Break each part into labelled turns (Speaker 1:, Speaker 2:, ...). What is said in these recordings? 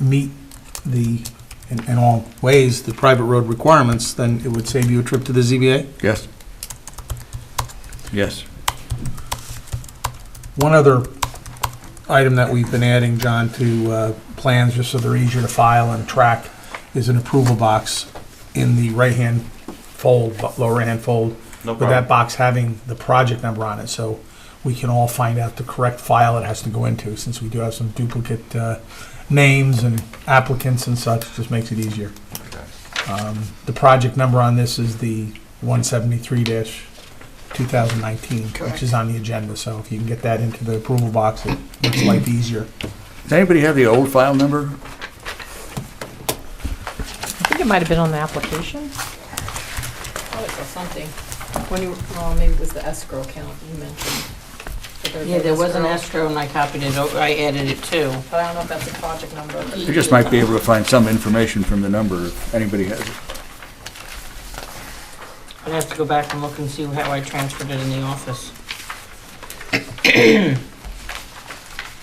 Speaker 1: meet the, in in all ways, the private road requirements, then it would save you a trip to the ZBA?
Speaker 2: Yes. Yes.
Speaker 1: One other item that we've been adding, John, to uh, plans, just so they're easier to file and track, is an approval box in the right-hand fold, bu- lower right-hand fold,
Speaker 3: No
Speaker 1: with that
Speaker 3: problem.
Speaker 1: box having the project number on it, so we can all find out the correct file it has to go into, since we do have some duplicate uh, names and applicants and such, just makes it easier. Um, The project number on this is the 173-2019, which is on the agenda, so if you can get that into the approval box, it makes life easier.
Speaker 2: Does anybody have the old file number?
Speaker 4: I think it might have been on the application.
Speaker 5: thought it was something. When you, well, maybe it was the escrow account you mentioned. But
Speaker 6: Yeah, there was an escrow and I copied it over, I added it too.
Speaker 5: But I don't know if that's a project number.
Speaker 2: You just might be able to find some information from the number if anybody has it.
Speaker 6: I'd have to go back and look and see how I transferred it in the office.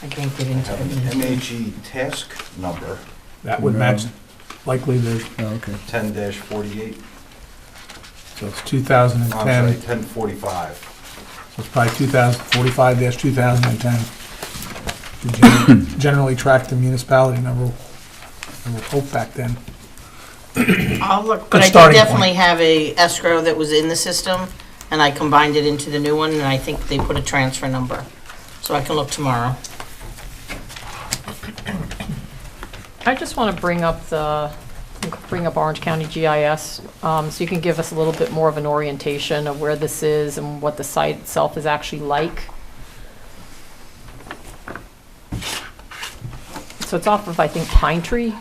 Speaker 6: I can't get into
Speaker 3: Have
Speaker 6: it.
Speaker 3: an MAG task number,
Speaker 1: That would match likely the,
Speaker 2: Oh, okay.
Speaker 3: ten forty-eight,
Speaker 1: so it's
Speaker 3: I'm sorry,
Speaker 1: 2010,
Speaker 3: ten forty-five.
Speaker 1: so it's probably 2045-2010. We gen- Generally track the municipality number, I would hope back then.
Speaker 6: I'll look,
Speaker 1: Good
Speaker 6: but I did
Speaker 1: starting point.
Speaker 6: definitely have a escrow that was in the system and I combined it into the new one and I think they put a transfer number. So I can look tomorrow.
Speaker 4: I just want to bring up the, bring up Orange County GIS, um, so you can give us a little bit more of an orientation of where this is and what the site itself is actually like. So it's off of, I think, Pine Tree.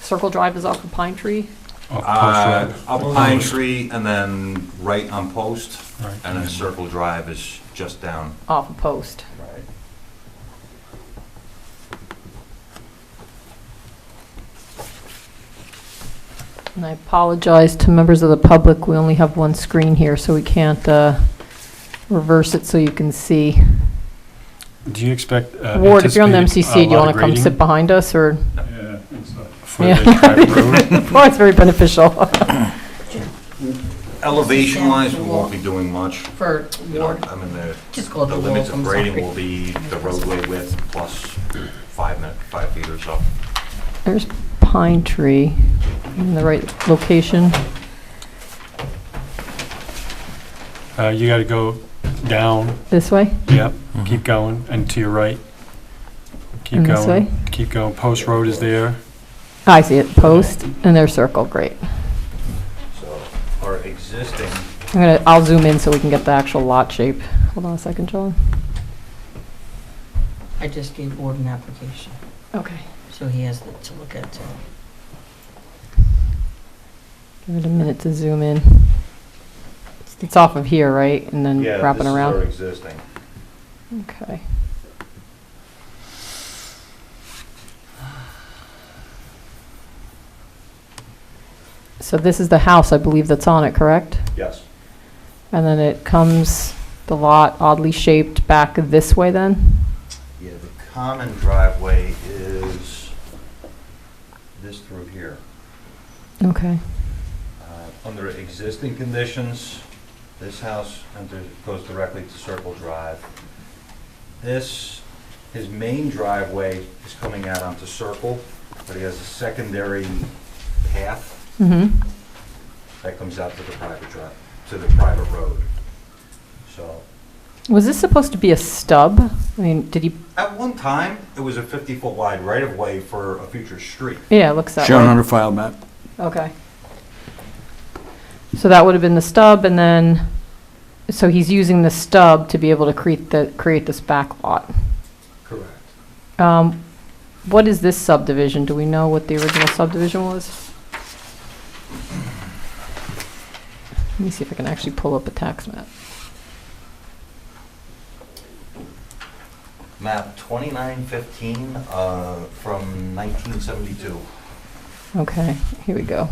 Speaker 4: Circle Drive is off of Pine Tree.
Speaker 7: Oh,
Speaker 3: Uh, up Pine Tree and then right on Post, and then Circle Drive is just down.
Speaker 4: off a post.
Speaker 3: Right.
Speaker 4: And I apologize to members of the public, we only have one screen here, so we can't uh, reverse it so you can see.
Speaker 7: Do you expect? uh,
Speaker 4: Ward, if you're on the
Speaker 7: anticipated,
Speaker 4: MCC, do you
Speaker 7: uh,
Speaker 4: want to come sit
Speaker 7: lot
Speaker 4: behind us, or?
Speaker 7: of grading For
Speaker 4: Yeah.
Speaker 7: the private road?
Speaker 4: Well, it's very beneficial.
Speaker 3: Elevation wise, we won't be doing much.
Speaker 6: For
Speaker 3: You know, I mean, the,
Speaker 6: Just call it
Speaker 3: the
Speaker 6: the
Speaker 3: limits
Speaker 6: wall,
Speaker 3: of
Speaker 6: I'm
Speaker 3: grading
Speaker 6: sorry.
Speaker 3: will be the roadway width plus five minute, five feet or so.
Speaker 4: There's Pine Tree, in the right location.
Speaker 7: Uh, You got to go down,
Speaker 4: This way?
Speaker 7: yep, keep going, and to your right. Keep
Speaker 4: And Mm-hmm. this way?
Speaker 7: going, keep going. Post Road is there.
Speaker 4: I see it, post, and their circle, great.
Speaker 3: So our existing
Speaker 4: I'm gonna, I'll zoom in so we can get the actual lot shape. Hold on a second, John.
Speaker 6: I just gave Ward an application,
Speaker 4: Okay.
Speaker 6: so he has it to look at too.
Speaker 4: Give it a minute to zoom in. It's off of here, right? And then
Speaker 3: Yeah,
Speaker 4: wrapping
Speaker 3: this is
Speaker 4: around?
Speaker 3: our existing.
Speaker 4: Okay. So this is the house, I believe, that's on it, correct?
Speaker 3: Yes.
Speaker 4: And then it comes, the lot oddly shaped back this way then?
Speaker 3: Yeah, the common driveway is this through here.
Speaker 4: Okay.
Speaker 3: Uh, Under existing conditions, this house enters- goes directly to Circle Drive. This, his main driveway is coming out onto Circle, but he has a secondary path
Speaker 4: Mm-hmm.
Speaker 3: that comes out to the private drive, to the private road. So,
Speaker 4: Was this supposed to be a stub? I mean, did he,
Speaker 3: at one time, it was a 50-foot wide right-of-way for a future street.
Speaker 4: yeah, it looks that way.
Speaker 2: Shown on the file map.
Speaker 4: Okay. So that would have been the stub, and then, so he's using the stub to be able to create the, create this back lot.
Speaker 3: Correct.
Speaker 4: Um, What is this subdivision? Do we know what the original subdivision was? Let me see if I can actually pull up a tax map.
Speaker 3: Map 2915 uh, from 1972.
Speaker 4: Okay, here we go.